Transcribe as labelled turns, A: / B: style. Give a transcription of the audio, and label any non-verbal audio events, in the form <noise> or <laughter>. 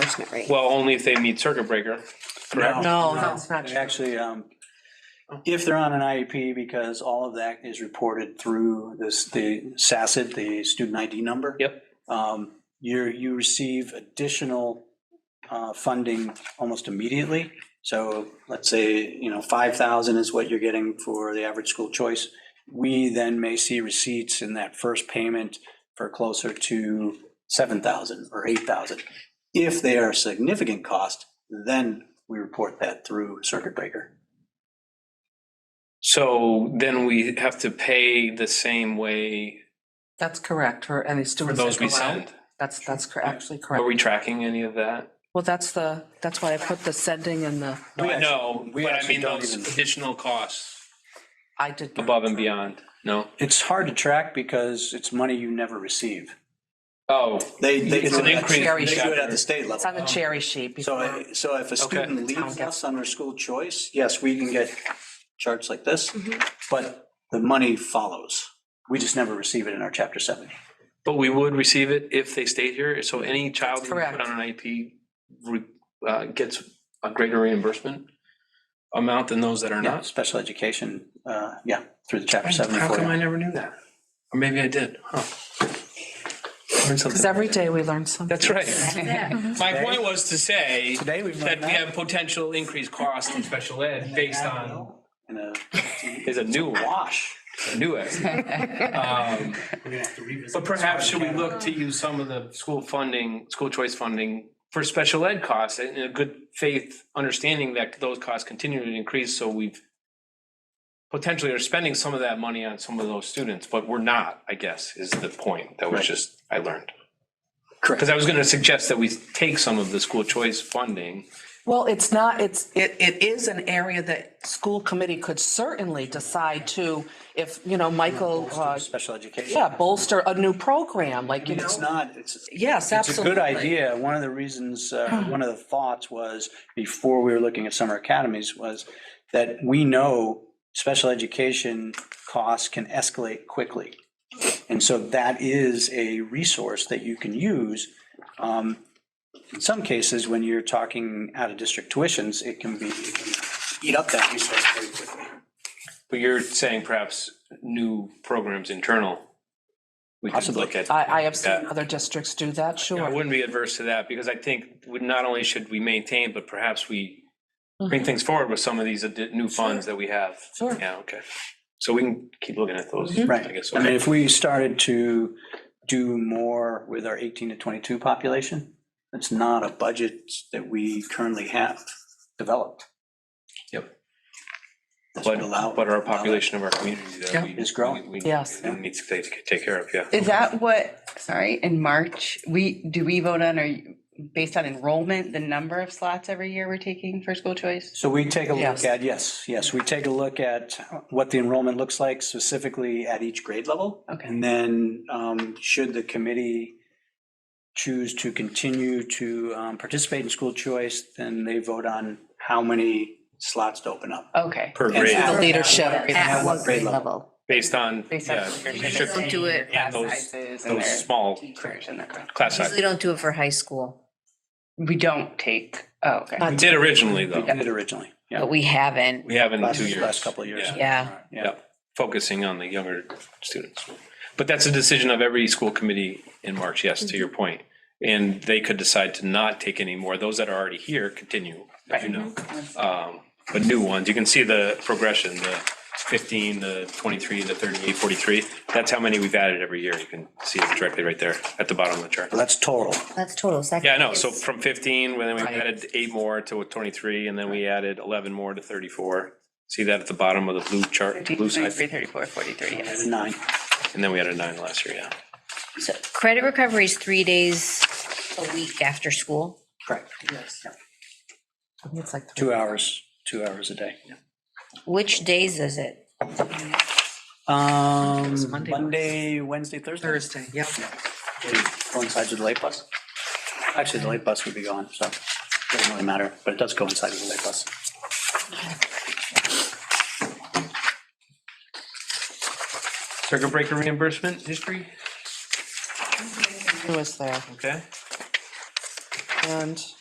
A: enforcement rate.
B: Well, only if they meet circuit breaker, correct?
C: No,
A: No.
C: Oh. that's not
D: They
C: true.
D: Actually, um, if they're on an IEP, because all of that is reported through this, the SACIT, the student ID number.
B: Yep.
D: Um, you're, you receive additional, uh, funding almost immediately. So let's say, you know, five thousand is what you're getting for the average school choice. We then may see receipts in that first payment for closer to seven thousand or eight thousand. If they are a significant cost, then we report that through circuit breaker.
B: So then we have to pay the same way
C: That's correct, for any
B: for
C: students
B: those
C: that
B: we
C: go out.
B: send.
C: That's, that's cor- actually
B: Are
C: correct.
B: we tracking any of that?
C: Well, that's the, that's why I put the sending and the,
D: We actually-
B: No,
D: we
B: but I
D: actually
B: mean
D: don't
B: those
D: even-
B: additional costs
C: I did. not.
B: above and beyond, no?
D: It's hard to track because it's money you never receive.
B: Oh,
D: They, they
B: It's
D: do
B: an
D: it at-
B: increase
D: They do it at
B: factor.
D: the state
C: It's on
D: level.
C: the cherry sheet
D: So,
C: before,
D: I- so if a student leaves
C: Okay.
D: us under school choice, yes, we can get charts like this,
C: Mm-hmm.
D: but the money follows. We just never receive it in our chapter seven.
B: but we would receive it if they stayed here, so any child that we
C: correct.
B: put on an IP re- uh, gets a greater reimbursement amount than those that are
D: Yeah,
B: not?
D: special education, uh, yeah, through the chapter seven.
B: How come I
D: for-
B: never knew that? Or maybe I did, huh? Learned
C: because
B: something.
C: every day we learn something.
B: That's right. <laughs> My point was to say
D: Today we've
B: that
D: learned
B: we
D: that.
B: have potential increased cost in special ed <laughs> based on.
D: In a
B: <laughs> Is a new
D: wash.
B: new <laughs> Um But perhaps should we look to use some of the school funding, school choice funding for special ed costs in a good faith understanding that those costs continue to increase, so we've potentially are spending some of that money on some of those students, but we're not, I guess, is the point that was
D: Right.
B: just, I learned.
D: Correct.
B: Because I was gonna suggest that we take some of the school choice funding.
C: Well, it's not, it's, it, it is an area that school committee could certainly decide to, if, you know, Michael, uh,
D: Special education.
C: yeah, bolster a new program, like, you
D: It's
C: know,
D: not, it's,
C: yes,
D: it's a
C: absolutely.
D: good idea. One of the reasons, uh, one of the thoughts was, before we were looking at summer academies, was that we know special education costs can escalate quickly. And so that is a resource that you can use. Um, In some cases, when you're talking out-of-district tuitions, it can be, it can eat up that resource very quickly.
B: But you're saying perhaps new programs internal. We could
D: Possibly.
B: look at.
C: I, I have seen
B: Yeah.
C: other districts do that,
B: I
C: sure.
B: wouldn't be adverse to that because I think we, not only should we maintain, but perhaps we bring things forward with some of these addi- new funds that we have.
C: Sure.
B: Yeah, okay. So we can keep looking at those. I
D: Right.
B: guess.
D: I mean,
B: okay.
D: if we started to do more with our 18 to 22 population, that's not a budget that we currently have developed.
B: Yep.
D: That's
B: But,
D: what allow-
B: but our population of our community that
C: Yeah.
B: we.
D: Is growing.
B: we- we
C: Yes.
B: Needs to take, take care of, yeah.
E: Is that what, sorry, in March, we, do we vote on, or based on enrollment, the number of slots every year we're taking for school choice?
D: So we take a look
C: Yes.
D: at, yes, yes, we take a look at what the enrollment looks like specifically at each grade level.
E: Okay.
D: And then um, should the committee choose to continue to um, participate in school choice, then they vote on how many slots to open up.
E: Okay.
B: Per
D: And-
B: grade,
D: The
C: leadership.
D: At what grade level?
B: based on,
E: Based on.
B: yeah, leadership
F: Don't do it.
B: and those, those small class
F: Usually
B: sizes.
F: don't do it for high school,
E: We don't take, oh, okay.
B: We did originally
D: We
B: though.
D: did it originally, yeah.
F: but we haven't.
B: We haven't in
D: Last-
B: two years.
D: Last couple of years.
B: Yeah.
F: Yeah.
D: Yeah.
B: focusing on the younger students. But that's a decision of every school committee in March, yes, to your point. And they could decide to not take any more. Those that are already here continue, as you know. Um, But new ones, you can see the progression, the 15, the 23, the 38, 43. That's how many we've added every year. You can see it directly right there at the bottom of the chart.
D: But That's total.
F: That's total. so that
B: Yeah, I know.
F: is-
B: So from 15, when we added eight more to 23, and then we added 11 more to 34. See that at the bottom of the blue chart, blue side?
E: 33, 34, 43, yes.
D: Nine.
B: And then we added nine last year, yeah.
F: So Credit recovery is three days a week after school.
D: Correct.
C: It's like
D: Two hours, two hours a day.
F: Which days is it?
D: Um,
C: Monday.
D: Monday, Wednesday, Thursday.
C: Thursday, yeah.
D: Coincides with the late bus. Actually, the late bus would be gone, so it doesn't really matter, but it does coincide with the late bus.
B: Circuit breaker reimbursement history,
C: Who was there?
B: okay?
C: And.